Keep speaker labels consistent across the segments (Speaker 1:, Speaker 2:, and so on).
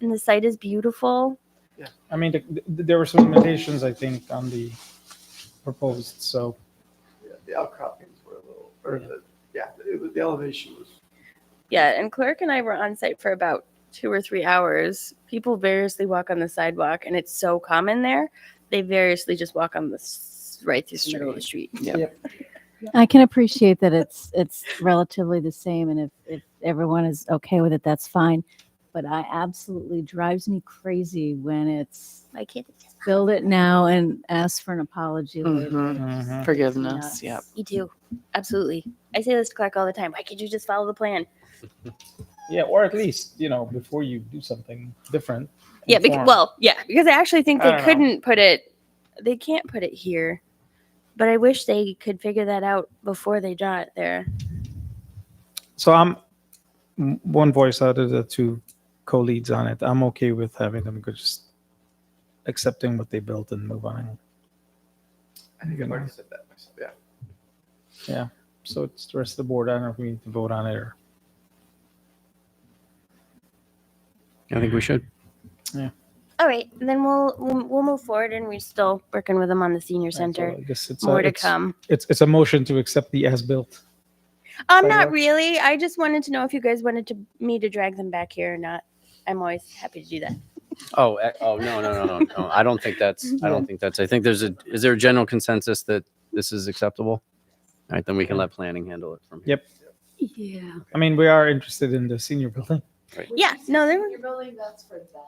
Speaker 1: the site is beautiful.
Speaker 2: Yeah, I mean, th- th- there were some limitations, I think, on the proposed, so,
Speaker 3: Yeah, the outcroppings were a little, or the, yeah, it was, the elevation was.
Speaker 1: Yeah, and Clark and I were on site for about two or three hours. People variously walk on the sidewalk, and it's so common there. They variously just walk on the s- right through the middle of the street.
Speaker 4: I can appreciate that it's it's relatively the same, and if if everyone is okay with it, that's fine. But I absolutely drives me crazy when it's
Speaker 1: My kid,
Speaker 4: build it now and ask for an apology later.
Speaker 5: Mhm.
Speaker 2: mhm.
Speaker 5: Forgiveness, yep.
Speaker 4: Nuts.
Speaker 1: you do absolutely. I say this to Clark all the time. Why can't you just follow the plan?
Speaker 2: yeah, or at least, you know, before you do something different.
Speaker 1: Yeah, because,
Speaker 2: inform.
Speaker 1: well, yeah, because I actually think
Speaker 2: I
Speaker 1: they
Speaker 2: don't know.
Speaker 1: couldn't put it. They can't put it here, but I wish they could figure that out before they draw it there.
Speaker 2: So I'm m- one voice out of the two co-leads on it. I'm okay with having them go just accepting what they built and move on.
Speaker 3: I think I've already said that myself. Yeah.
Speaker 2: So it's the rest of the board. I don't know if we need to vote on it or.
Speaker 6: I think we should.
Speaker 1: All right, then we'll we'll, we'll move forward, and we're still working with them on the senior center.
Speaker 2: I guess it's, a,
Speaker 1: More to
Speaker 2: it's,
Speaker 1: come.
Speaker 2: it's, it's a motion to accept the as-built.
Speaker 1: Um,
Speaker 2: Sidewalks.
Speaker 1: not really. I just wanted to know if you guys wanted to me to drag them back here or not. I'm always happy to do that.
Speaker 6: Oh, eh, oh, no, no, no, no, no. I don't think that's, I don't think that's, I think there's a, is there a general consensus that this is acceptable? All right, then we can let planning handle it from here.
Speaker 2: Yep.
Speaker 4: Yeah.
Speaker 2: I mean, we are interested in the senior building.
Speaker 1: Yeah, no, they're
Speaker 7: You're building that's for them?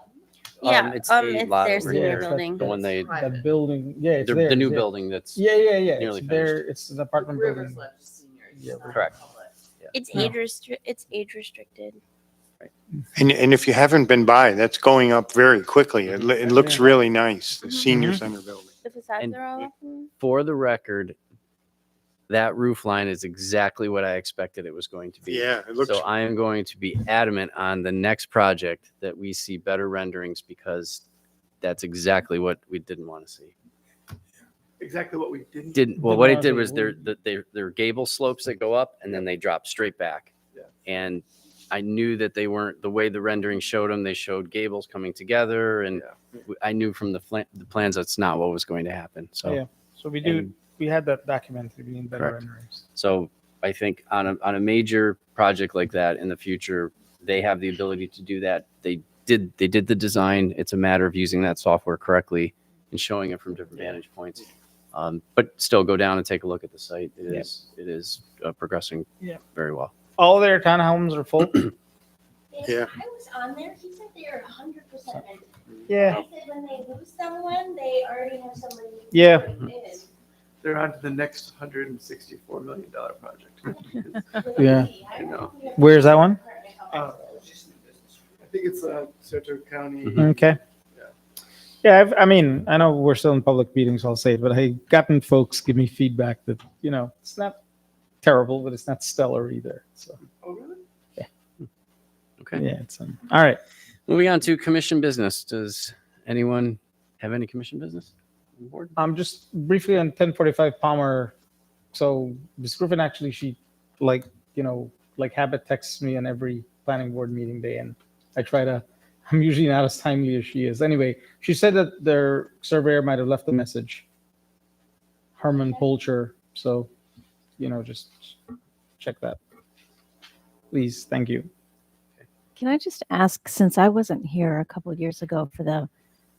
Speaker 1: yeah.
Speaker 6: it's
Speaker 1: Um,
Speaker 6: the
Speaker 1: it's
Speaker 6: lot
Speaker 1: their
Speaker 6: over
Speaker 1: senior
Speaker 6: here.
Speaker 1: building.
Speaker 6: The one they,
Speaker 2: The
Speaker 7: Private.
Speaker 2: building, yeah, it's
Speaker 6: the
Speaker 2: theirs,
Speaker 6: the new
Speaker 2: yeah.
Speaker 6: building that's,
Speaker 2: Yeah, yeah, yeah.
Speaker 6: Nearly
Speaker 2: it's there. It's an apartment
Speaker 7: Rivers
Speaker 2: building.
Speaker 7: left senior.
Speaker 2: Yeah,
Speaker 7: it's not
Speaker 6: correct.
Speaker 7: public.
Speaker 1: It's
Speaker 2: No.
Speaker 1: age restri- It's age restricted.
Speaker 8: And, and if you haven't been by, that's going up very quickly. It, lo- it looks really nice, the senior
Speaker 2: Mm-hmm.
Speaker 8: center building.
Speaker 1: Mm-hmm. The facades
Speaker 6: And-
Speaker 1: are all up. and-
Speaker 6: for the record, that roof line is exactly what I expected it was going to be.
Speaker 8: Yeah, it looks,
Speaker 6: So I am going to be adamant on the next project that we see better renderings because that's exactly what we didn't want to see.
Speaker 3: Exactly what we didn't.
Speaker 6: didn't well
Speaker 2: Did
Speaker 6: what
Speaker 2: not
Speaker 6: it did
Speaker 2: do
Speaker 6: was there
Speaker 2: wood.
Speaker 6: the, there there are gable slopes that go up and then they drop straight back
Speaker 3: Yeah.
Speaker 6: and i knew that they weren't the way the rendering showed them they showed gables coming together and w- i knew from the, fl- the plans that's not what was going to happen so
Speaker 2: Yeah. So we do,
Speaker 6: and-
Speaker 2: we had that documented. We need better
Speaker 6: Correct.
Speaker 2: renderings.
Speaker 6: so i think on a, on a major project like that in the future they have the ability to do that they did they did the design it's a matter of using that software correctly and showing it from different vantage points um, but still go down and take a look at the site It is
Speaker 2: Yep.
Speaker 6: it is uh, progressing
Speaker 2: Yep.
Speaker 6: very well
Speaker 2: All their townhomes are full.
Speaker 8: Yeah.
Speaker 9: I was on there, he said they are hundred percent rented.
Speaker 2: Yeah.
Speaker 9: I said when they lose someone, they already have somebody. to
Speaker 2: Yeah.
Speaker 9: put in.
Speaker 3: They're on to the next hundred and sixty-four million dollar project. Uh,
Speaker 2: Yeah.
Speaker 9: I don't
Speaker 3: know.
Speaker 9: think we have
Speaker 2: Where's that one?
Speaker 9: apartment
Speaker 3: Uh,
Speaker 9: complexes.
Speaker 3: I think it's, uh, Saratoga County.
Speaker 6: Mhm.
Speaker 2: Mm-hmm. Okay. Yeah, I've, I mean, I know we're still in public meetings, I'll say it, but I've gotten folks give me feedback that, you know, it's not terrible, but it's not stellar either. So,
Speaker 3: Oh, really?
Speaker 6: okay
Speaker 2: yeah, it's, um, all right.
Speaker 6: Moving on to commission business. Does anyone have any commission business? on board?
Speaker 2: I'm just briefly on 1045 Palmer. So Ms. Griffin actually, she like, you know, like habit texts me on every planning board meeting day and I try to, I'm usually not as timely as she is. Anyway, she said that their surveyor might have left a message. Herman Polcher. So, you know, just check that. Please, thank you.
Speaker 4: Can I just ask, since I wasn't here a couple of years ago for the,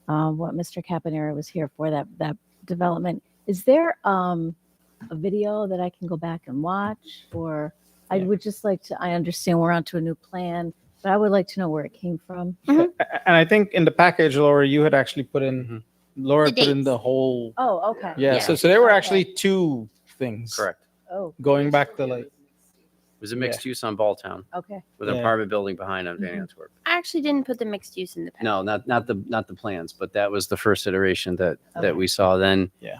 Speaker 4: um, what Mr. Capanera was here for, that, that development, is there, um, a video that I can go back and watch? Or I
Speaker 2: Yeah.
Speaker 4: would just like to, I understand we're onto a new plan, but I would like to know where it came from.
Speaker 1: Mm-hmm.
Speaker 2: A- And I think in the package, Laura, you had actually put in,
Speaker 6: Mhm.
Speaker 2: Laura
Speaker 1: The
Speaker 2: put in
Speaker 1: dates.
Speaker 2: the whole,
Speaker 4: Oh, okay.
Speaker 2: yeah.
Speaker 1: Yeah.
Speaker 2: So, so there were actually two things.
Speaker 6: Correct.
Speaker 4: Oh,
Speaker 2: Going back to like,
Speaker 6: It was a mixed use on Balltown
Speaker 4: okay.
Speaker 6: with an
Speaker 2: Yeah.
Speaker 6: apartment building behind on Van Antwerp.
Speaker 1: I actually didn't put the mixed use in the past.
Speaker 6: No, not, not the, not the plans, but that was the first iteration that,
Speaker 4: Okay.
Speaker 6: that we saw then.
Speaker 2: Yeah.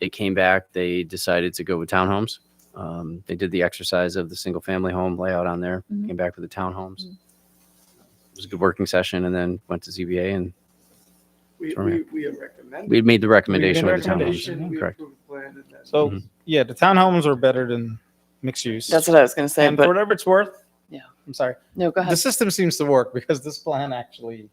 Speaker 6: It came back, they decided to go with townhomes. Um, they did the exercise of the single family home layout on there,
Speaker 4: Mhm.
Speaker 6: came back with the townhomes.
Speaker 4: Mhm.
Speaker 6: It was a good working session and then went to ZBA and
Speaker 3: We, we,
Speaker 6: Sorry.
Speaker 3: we have recommended.
Speaker 6: we made the recommendation with the
Speaker 2: recommendation,
Speaker 6: townhomes.
Speaker 3: We
Speaker 6: Correct.
Speaker 3: approved the plan and then.
Speaker 2: So
Speaker 6: Mhm.
Speaker 2: yeah, the townhomes are better than mixed use.
Speaker 5: That's what I was gonna say,
Speaker 2: and for
Speaker 5: but
Speaker 2: whatever it's worth.
Speaker 5: Yeah. Uh-huh.
Speaker 2: I'm sorry.
Speaker 5: no, go
Speaker 2: The
Speaker 5: ahead.
Speaker 2: system seems to work because this plan actually